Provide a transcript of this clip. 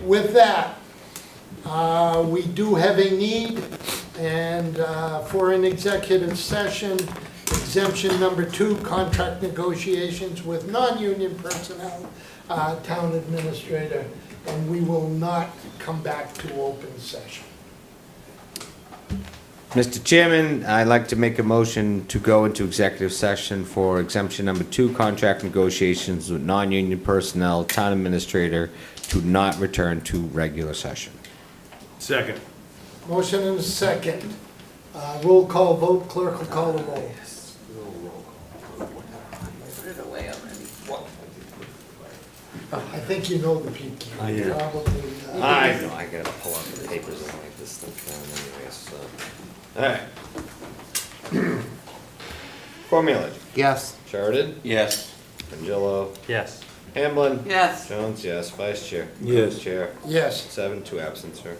with that, uh, we do have a need, and uh, for an executive session, exemption number two, contract negotiations with non-union personnel, uh, town administrator, and we will not come back to open session. Mr. Chairman, I'd like to make a motion to go into executive session for exemption number two, contract negotiations with non-union personnel, town administrator, to not return to regular session. Second. Motion and a second. Uh, Roll call vote, clerk will call the roll. Put it away already. I think you know the people. Probably, uh, Aye. No, I gotta pull out the papers and write this stuff down anyway, so. All right. Cormier. Yes. Sheridan? Yes. Angelo? Yes. Hamblin? Yes. Jones, yes. Vice Chair? Yes. Chair? Yes. Seven, two absent, sir.